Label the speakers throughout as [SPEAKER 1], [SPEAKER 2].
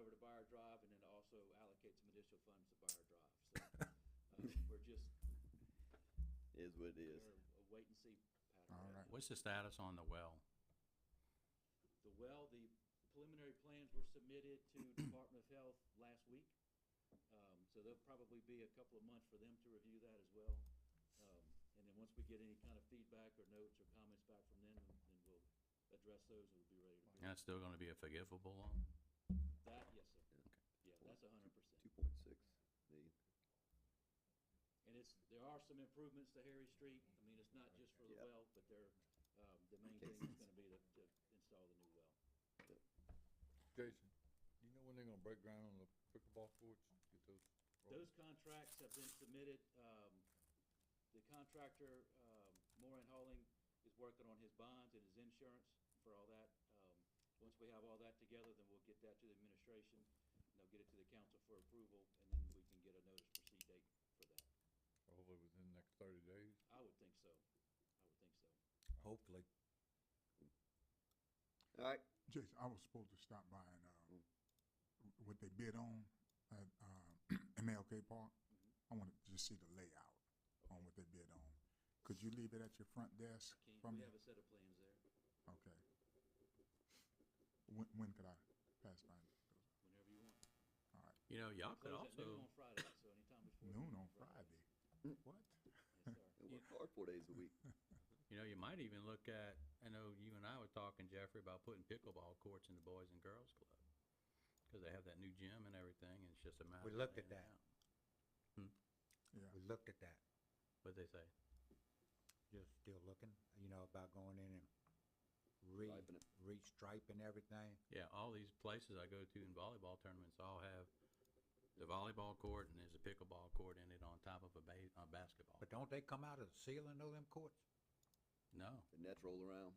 [SPEAKER 1] Drive and then also allocate some additional funds to Buyer Drive. So, uh, we're just,
[SPEAKER 2] Is what it
[SPEAKER 1] we're
[SPEAKER 2] is.
[SPEAKER 1] a wait and see pattern.
[SPEAKER 3] All right.
[SPEAKER 4] What's the status on the well?
[SPEAKER 1] The well, the preliminary plans were submitted to Department of Health last week. Um, so there'll probably be a couple of months for them to review that as well. Um, and then once we get any kind of feedback or notes or comments back from them, then we'll address those and we'll be ready to bid.
[SPEAKER 4] And it's still gonna be a forgivable loan?
[SPEAKER 1] That, yes, sir.
[SPEAKER 2] Yeah.
[SPEAKER 4] Okay.
[SPEAKER 1] Yeah, that's a hundred percent.
[SPEAKER 2] Two point six million.
[SPEAKER 1] And it's, there are some improvements to Harry Street. I mean, it's not just for the
[SPEAKER 2] Yep.
[SPEAKER 1] well, but they're, um, the main
[SPEAKER 2] Okay.
[SPEAKER 1] thing is gonna be to, to install the new well.
[SPEAKER 3] Jason, do you know when they're gonna break ground on the pickleball courts? Get those. rolling?
[SPEAKER 1] Those contracts have been submitted, um, the contractor, um, Moran Hauling is working on his bonds and his insurance for all that. Um, once we have all that together, then we'll get that to the administration, and they'll get it to the council for approval, and then we can get a notice proceed date for that.
[SPEAKER 3] Hopefully within the next thirty days.
[SPEAKER 1] I would think so, I would think so.
[SPEAKER 3] Hopefully.
[SPEAKER 2] All right,
[SPEAKER 5] Jason, I was supposed to stop by and, uh,
[SPEAKER 2] Mm.
[SPEAKER 5] what they bid on at, uh, MLK Park.
[SPEAKER 1] Mhm.
[SPEAKER 5] I wanted to just see the layout on what they bid on. Could you leave it at your front desk
[SPEAKER 1] Can,
[SPEAKER 5] from
[SPEAKER 1] we
[SPEAKER 5] me?
[SPEAKER 1] have a set of plans there,
[SPEAKER 5] Okay. When, when could I pass by?
[SPEAKER 1] whenever you want.
[SPEAKER 5] All right,
[SPEAKER 4] You know, y'all could
[SPEAKER 1] Close at noon
[SPEAKER 4] also,
[SPEAKER 1] on Friday, so anytime before.
[SPEAKER 5] noon on Friday. What?
[SPEAKER 1] Yes, sir.
[SPEAKER 2] I work hard four days a week.
[SPEAKER 4] you know, you might even look at, I know you and I were talking, Jeffrey, about putting pickleball courts in the Boys and Girls Club. Cause they have that new gym and everything, and it's just a matter.
[SPEAKER 6] We
[SPEAKER 4] of
[SPEAKER 6] looked at
[SPEAKER 4] laying it
[SPEAKER 6] that.
[SPEAKER 4] out.
[SPEAKER 5] Yeah,
[SPEAKER 6] We looked at that,
[SPEAKER 4] What'd they say?
[SPEAKER 6] just still looking, you know, about going in and re,
[SPEAKER 2] Striping it.
[SPEAKER 6] re-striping everything.
[SPEAKER 4] Yeah, all these places I go to in volleyball tournaments all have the volleyball court and there's a pickleball court in it on top of a ba- a basketball.
[SPEAKER 6] But don't they come out of the ceiling of them courts?
[SPEAKER 4] No,
[SPEAKER 2] The nets roll around.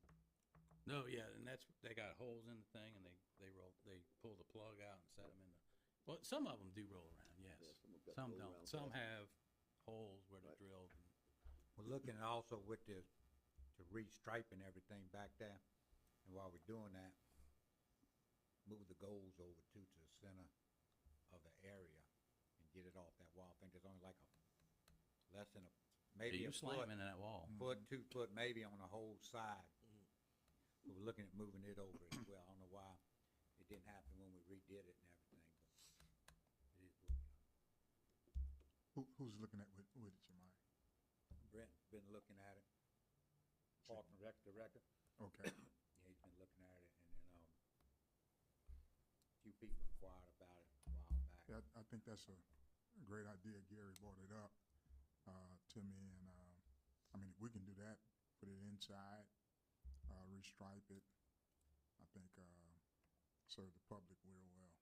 [SPEAKER 4] no, yeah, and that's, they got holes in the thing and they, they roll, they pull the plug out and set them in the, well, some of them do roll around,
[SPEAKER 2] Yeah,
[SPEAKER 4] yes.
[SPEAKER 2] some have got
[SPEAKER 4] Some
[SPEAKER 2] roll
[SPEAKER 4] don't,
[SPEAKER 2] around
[SPEAKER 4] some
[SPEAKER 2] stuff.
[SPEAKER 4] have holes where they're
[SPEAKER 2] Right.
[SPEAKER 4] drilled.
[SPEAKER 6] We're looking at also with the, to re-striping everything back there, and while we're doing that, move the goals over too to the center of the area and get it off that wall. I think there's only like a, less than a,
[SPEAKER 4] Yeah,
[SPEAKER 6] maybe a
[SPEAKER 4] you
[SPEAKER 6] foot,
[SPEAKER 4] slam into that wall.
[SPEAKER 6] foot, two foot maybe on the whole side. But we're looking at moving it over as well. I don't know why it didn't happen when we redid it and everything, but it is what it is.
[SPEAKER 5] who, who's looking at, with, with it, Jemiah?
[SPEAKER 6] Brent's been looking at it,
[SPEAKER 5] Sure.
[SPEAKER 6] Park and Rec Director,
[SPEAKER 5] Okay,
[SPEAKER 6] yeah, he's been looking at it, and then, um, a few people inquired about it a while back.
[SPEAKER 5] yeah, I, I think that's a great idea. Gary brought it up, uh, to me and, um, I mean, if we can do that, put it inside, uh, restripe it, I think, uh, serve the public real well.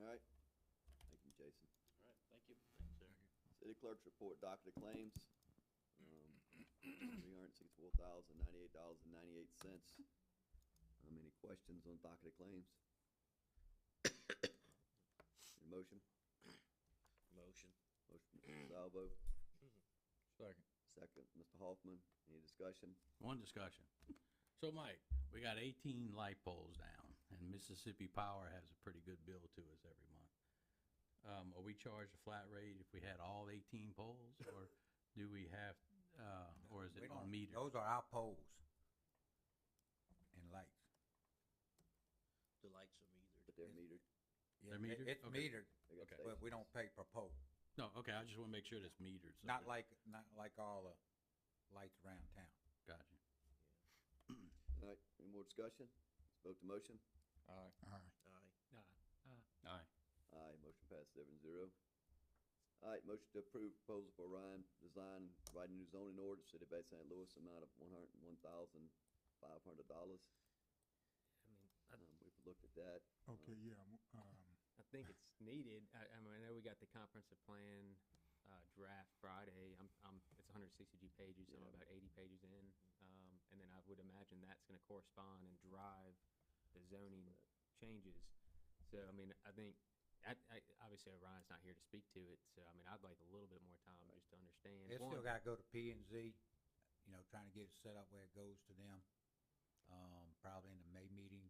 [SPEAKER 2] All right. Thank you, Jason.
[SPEAKER 1] All right, thank you.
[SPEAKER 2] City clerk's report, docket of claims. um, Three hundred sixty-four thousand, ninety-eight dollars and ninety-eight cents. Um, any questions on docket of claims? Need a motion?
[SPEAKER 7] Motion.
[SPEAKER 2] Motion, Mr. Salvo,
[SPEAKER 3] Second.
[SPEAKER 2] second, Mr. Hoffman. Any discussion?
[SPEAKER 4] One discussion. So Mike, we got eighteen light poles down and Mississippi Power has a pretty good bill to us every month. Um, are we charged a flat rate if we had all eighteen poles or do we have, uh, or is
[SPEAKER 6] We
[SPEAKER 4] it
[SPEAKER 6] don't-
[SPEAKER 4] on meter?
[SPEAKER 6] Those are our poles and lights.
[SPEAKER 7] The likes of either.
[SPEAKER 2] But they're metered.
[SPEAKER 6] Yeah,
[SPEAKER 4] They're metered?
[SPEAKER 6] it- It's
[SPEAKER 4] Okay.
[SPEAKER 6] metered,
[SPEAKER 2] They got
[SPEAKER 4] Okay.
[SPEAKER 2] stations.
[SPEAKER 6] but we don't pay per pole,
[SPEAKER 4] No, okay, I just wanna make sure that's metered. so
[SPEAKER 6] not
[SPEAKER 4] that-
[SPEAKER 6] like, not like all the lights around town.
[SPEAKER 4] Gotcha.
[SPEAKER 2] All right, any more discussion? Let's vote to motion.
[SPEAKER 3] All right.
[SPEAKER 5] All right.
[SPEAKER 7] Aye.
[SPEAKER 4] All right.
[SPEAKER 2] Aye, motion passed seven zero. All right, motion to approve proposal for Ryan Design, writing new zoning ordinance, City of Bay St. Louis, amount of one hundred and one thousand five hundred dollars.
[SPEAKER 8] I mean, I,
[SPEAKER 2] Um, we've looked at that.
[SPEAKER 5] Okay, yeah, w- um,
[SPEAKER 8] I think it's needed. I, I mean, I know we got the comprehensive plan, uh, draft Friday. I'm, I'm, it's hundred and sixty-two pages, so I'm
[SPEAKER 2] Yeah.
[SPEAKER 8] about eighty pages in. Um, and then I would imagine that's gonna correspond and drive the zoning changes. So, I mean, I think, I, I, obviously Orion's not here to speak to it, so, I mean, I'd like a little bit more time just to understand.
[SPEAKER 6] It's still
[SPEAKER 8] One,
[SPEAKER 6] gotta go to P and Z, you know, trying to get it set up where it goes to them, um, probably in the May meeting,